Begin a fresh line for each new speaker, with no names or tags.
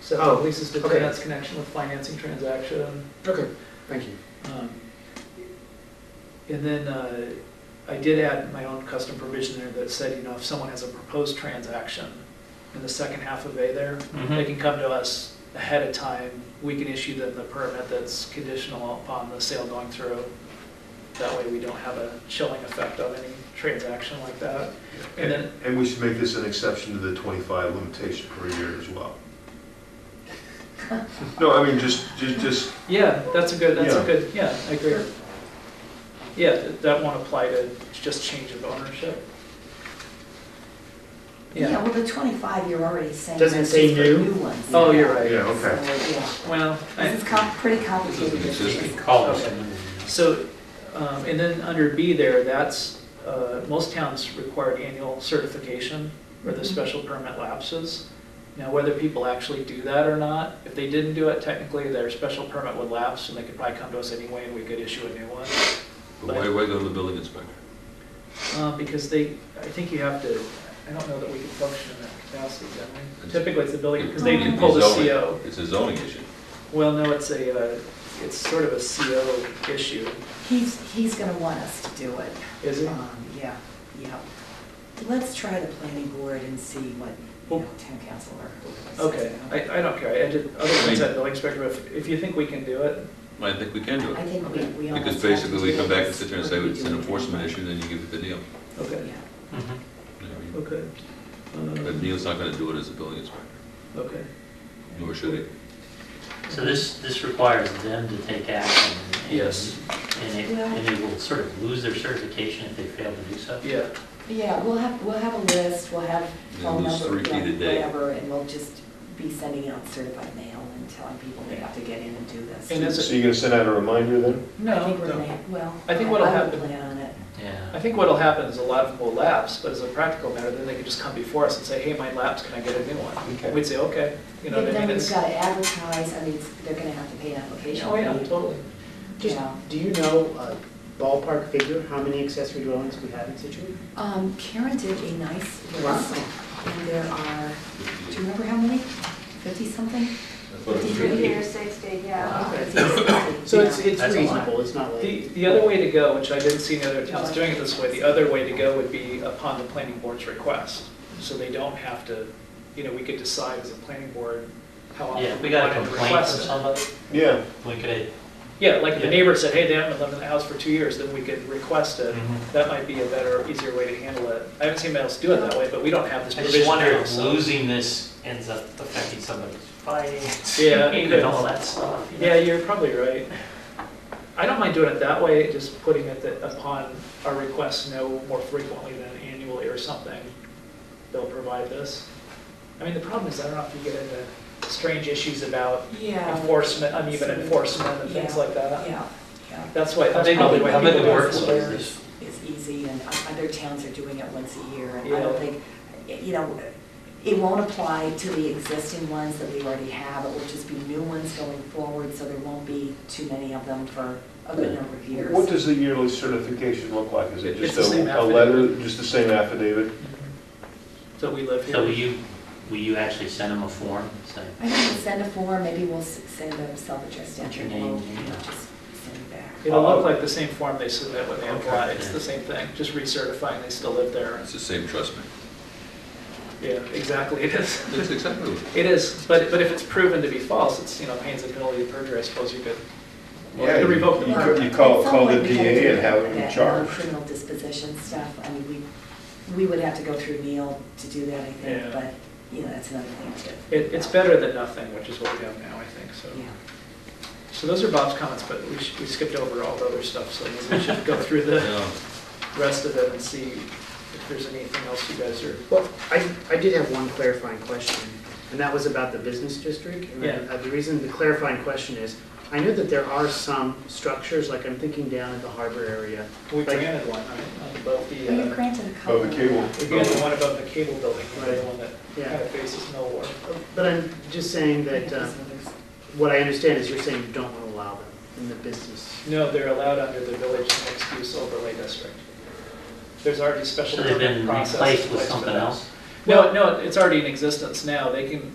So
Oh,
leases to
okay.
finance connection with financing transaction.
Okay, thank you.
Um, And then uh, I did add my own custom provision there that said, you know, if someone has a proposed transaction in the second half of A there, they can come to us ahead of time. We can issue them the permit that's conditional upon the sale going through. That way we don't have a chilling effect on any transaction like that. And
And,
then-
and we should make this an exception to the 25 limitation per year as well. No, I mean, just, just, just,
Yeah, that's a good, that's a
Yeah.
good, yeah, I agree. Yeah, th- that won't apply to just change of ownership.
Yeah,
Yeah,
well, the 25, you're already saying.
Doesn't
that's
say
just for
new?
ones.
oh, you're right.
yeah, okay.
So,
Well,
yeah.
I-
This is com- pretty complicated.
Doesn't exist in
It's-
columns.
Okay. so, um, and then under B there, that's, uh, most towns require annual certification where the
Mhm.
special permit lapses. Now, whether people actually do that or not, if they didn't do it, technically their special permit would lapse and they could probably come to us anyway and we could issue a new one.
But why, why go to the building inspector?
Uh, Because they, I think you have to, I don't know that we can function in that capacity, don't we? Typically, it's the building, because they can pull the
It's a zoning-
CO.
It's a zoning issue.
Well, no, it's a, uh, it's sort of a CO issue,
He's, he's going to want us to do it.
is it?
Um, Yeah, yeah. Let's try the planning board and see what, you know, town council or whoever says.
Okay, I, I don't care, I did other things at building inspector, but if- if you think we can do it,
I think we can do
I
it,
think we, we almost.
because
have to
basically we
do
come
it
back and sit there and say
because
it's an
we're
enforcement
doing
issue, then you give it to Neil.
it.
okay,
Yeah.
You know what I mean?
okay.
But
Um,
Neil's not gonna do it as a building inspector,
Okay,
nor should he.
So this, this requires them to take action. and-
Yes.
And it,
Well-
and they will sort of lose their certification if they fail to do so.
yeah,
Yeah, we'll have, we'll have a list, we'll have
Then
phone
lose
number,
three feet a
yeah,
day.
whatever, and we'll just be sending out certified mail and telling people they have to get in and do this.
And that's-
So you're gonna send out a reminder then?
I think
no,
we're gonna
no.
have- Well.
I think what'll
would
happen-
Plan on it.
I
Yeah.
think what'll happen is a lot of them will lapse, but as a practical matter, then they can just come before us and say, hey, mine lapsed, can I get a new
Okay.
one? We'd say, okay, you know
Then
what I mean?
we've
It's-
got to advertise, I mean, it's- they're gonna have to pay an application.
Oh, yeah,
fee.
totally.
Just,
Yeah.
do you know a ballpark figure, how many accessory dwellings we have in Situate?
Um, Karen did a nice
Wow.
list, and there are, do you remember how many? Fifty-something?
That's what I'm
Fifty-three?
Fifty or sixty, yeah.
Okay. So
So
it's, it's
That's a lot.
reasonable, it's not like.
The, the other way to go, which I didn't see in other towns doing it this way, the other way to go would be upon the planning board's request. So they don't have to, you know, we could decide as a planning board how
Yeah,
often
if
we
we got a
wanted to
complaint
request
from
it.
somebody,
Yeah,
we could,
Yeah, like if the
Yeah.
neighbor said, hey, they haven't lived in the house for two years, then we could request it.
Mhm.
That might be a better, easier way to handle it. I haven't seen anyone else do it that way, but we don't have this
I
provision.
just wonder
now,
if
so-
losing this ends up affecting somebody's finance.
Yeah, it could.
And all that stuff. you know?
Yeah, you're probably right. I don't mind doing it that way, just putting it that upon our request no more frequently than annually or something, they'll provide this. I mean, the problem is, I don't know if you get into strange issues about
Yeah.
enforcement, uneven enforcement and things like that.
Yeah, yeah.
That's why, that's
How big-
probably why
how big
people
the
do it.
workload is
Squares
this?
Is easy, and o- other towns are doing it once a year, and I
Yeah.
don't think, you know, it won't apply to the existing ones that we already have, it will just be new ones going forward, so there won't be too many of them for a good number of years.
what does the yearly certification look like? Is it
It's
just
the same
a, a letter, just the same affidavit?
So we live
So will
here.
you, will you actually send them a form saying,
I think we'll send a form, maybe we'll s- send a self-addressed
What's your
entry,
name?
we'll, you know, just send it back.
It'll look like the same form they submit when they
Oh. Okay.
apply, it's the same thing, just recertifying they still live there.
It's the same, trust me.
Yeah, exactly, it is.
That's exactly what.
It is, but, but if it's proven to be false, it's, you know, pains and penalty of perjury, I suppose you could, well, you could
Yeah,
revoke the
you-
permit.
You call,
At some
call the
point, we gotta
DA
do
and have him
that,
in
uh,
charge.
Criminal disposition stuff, I mean, we, we would have to go through Neil to do that, I
Yeah.
think, but, you know, that's another thing too.
It, it's better than nothing, which is what we have now, I think, so.
Yeah.
So those are Bob's comments, but we sh we skipped over all the other stuff, so maybe we should go through the
Yeah.
rest of it and see if there's anything else you guys are,
Well, I, I did have one clarifying question, and that was about the business district. And
Yeah.
uh, The reason, the clarifying question is, I know that there are some structures, like I'm thinking down at the harbor area.
we
Like-
granted one, right, above the,
Well, you
uh,
granted a couple.
Oh, the cable.
we granted one above the cable building, right, the one that
Yeah.
kind of faces Millward.
But I'm just saying
Yeah,
that, uh,
there's others.
what I understand is you're saying you don't want to allow them in the business.
No, they're allowed under the village mixed-use overlay district. There's already special
so they've
permit
been
process. in
replaced with
place for
something
that.
else?
No, no, it's already in existence now, they can,